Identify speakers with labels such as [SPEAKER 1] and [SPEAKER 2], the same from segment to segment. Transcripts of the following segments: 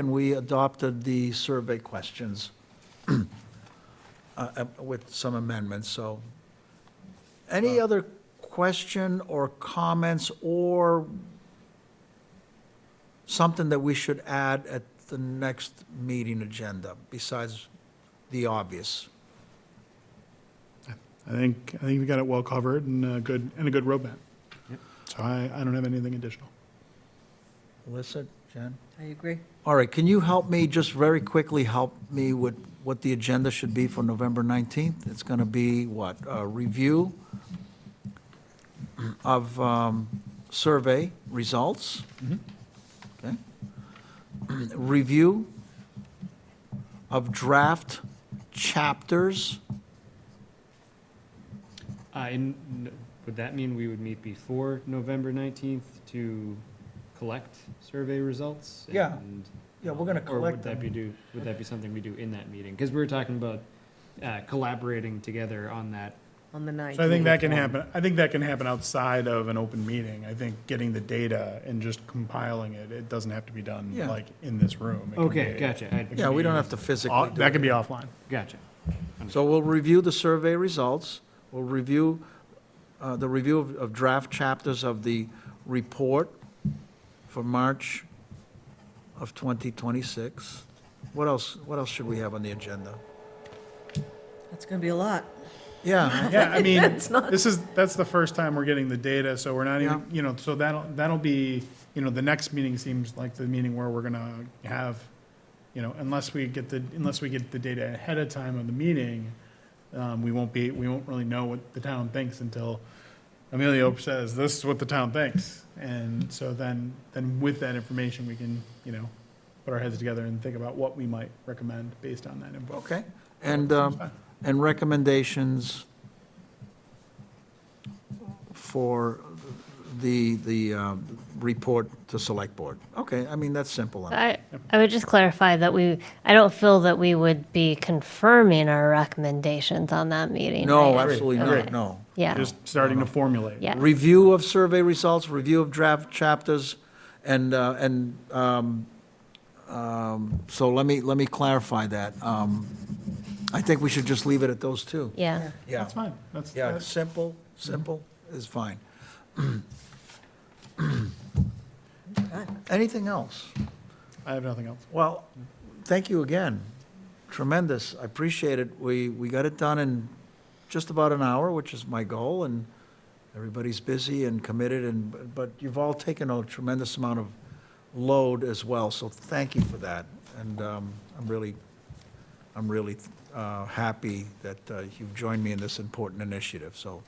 [SPEAKER 1] and we adopted the survey questions uh, uh, with some amendments, so. Any other question or comments or something that we should add at the next meeting agenda besides the obvious?
[SPEAKER 2] I think, I think we got it well covered and a good, and a good roadmap. So I, I don't have anything additional.
[SPEAKER 1] Alyssa, Jen?
[SPEAKER 3] I agree.
[SPEAKER 1] All right, can you help me, just very quickly, help me with what the agenda should be for November 19th? It's going to be what? A review of um, survey results? Okay. Review of draft chapters?
[SPEAKER 4] I, n- would that mean we would meet before November 19th to collect survey results?
[SPEAKER 1] Yeah.
[SPEAKER 4] and,
[SPEAKER 1] Yeah, we're gonna
[SPEAKER 4] um, Or
[SPEAKER 1] collect
[SPEAKER 4] would that
[SPEAKER 1] them.
[SPEAKER 4] be do, would that be something we do in that meeting? Because we were talking about uh, collaborating together on that.
[SPEAKER 3] On the 19th.
[SPEAKER 2] So I think that can happen, I think that can happen outside of an open meeting. I think getting the data and just compiling it, it doesn't have to be done
[SPEAKER 1] Yeah.
[SPEAKER 2] like in this room. It can
[SPEAKER 4] Okay,
[SPEAKER 2] be-
[SPEAKER 4] gotcha. I-
[SPEAKER 1] Yeah, we don't have to physically
[SPEAKER 2] off-
[SPEAKER 1] do
[SPEAKER 2] That
[SPEAKER 1] it.
[SPEAKER 2] could be offline.
[SPEAKER 4] Gotcha.
[SPEAKER 1] So we'll review the survey results, we'll review, uh, the review of- of draft chapters of the report for March of 2026. What else, what else should we have on the agenda?
[SPEAKER 3] That's going to be a lot.
[SPEAKER 1] Yeah,
[SPEAKER 2] Yeah, I mean,
[SPEAKER 3] It's not-
[SPEAKER 2] this is, that's the first time we're getting the data, so we're not even,
[SPEAKER 1] Yeah.
[SPEAKER 2] you know, so that'll, that'll be, you know, the next meeting seems like the meeting where we're gonna have, you know, unless we get the, unless we get the data ahead of time of the meeting, um, we won't be, we won't really know what the town thinks until Emilio says, this is what the town thinks. And so then, then with that information, we can, you know, put our heads together and think about what we might recommend based on that input.
[SPEAKER 1] okay. And, um, and recommendations for the, the um, report to Select Board. Okay, I mean, that's simple.
[SPEAKER 5] I, I would just clarify that we, I don't feel that we would be confirming our recommendations on that meeting.
[SPEAKER 1] No,
[SPEAKER 5] right?
[SPEAKER 1] absolutely not,
[SPEAKER 5] Okay.
[SPEAKER 1] no.
[SPEAKER 5] Yeah,
[SPEAKER 2] Just starting to formulate.
[SPEAKER 5] yeah.
[SPEAKER 1] review of survey results, review of draft chapters, and, uh, and, um, um, so let me, let me clarify that. Um, I think we should just leave it at those two.
[SPEAKER 5] Yeah,
[SPEAKER 1] Yeah,
[SPEAKER 2] That's fine. Mm-hmm. That's,
[SPEAKER 1] yeah,
[SPEAKER 2] that's-
[SPEAKER 1] simple, simple is fine. Anything else?
[SPEAKER 2] I have nothing else.
[SPEAKER 1] Well, thank you again. Tremendous. I appreciate it. We, we got it done in just about an hour, which is my goal, and everybody's busy and committed, and, but you've all taken a tremendous amount of load as well, so thank you for that. And um, I'm really, I'm really uh, happy that uh, you've joined me in this important initiative, so.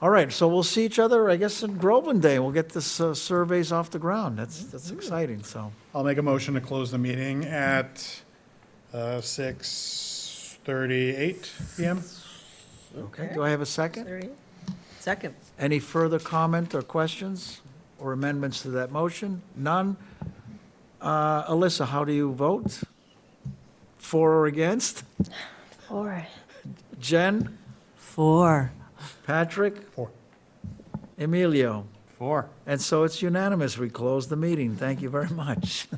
[SPEAKER 1] All right, so we'll see each other, I guess, in Groveland Day. We'll get this uh, surveys off the ground. That's, that's exciting, so.
[SPEAKER 2] I'll make a motion to close the meeting at uh, 6:38 PM.
[SPEAKER 1] Okay, do I have a second?
[SPEAKER 3] Sorry. Second.
[SPEAKER 1] Any further comment or questions or amendments to that motion? None? Uh, Alyssa, how do you vote? For or against?
[SPEAKER 5] or,
[SPEAKER 1] Jen?
[SPEAKER 3] Four.
[SPEAKER 1] Patrick?
[SPEAKER 2] Four.
[SPEAKER 1] Emilio?
[SPEAKER 2] Four.
[SPEAKER 1] And so it's unanimous. We close the meeting. Thank you very much.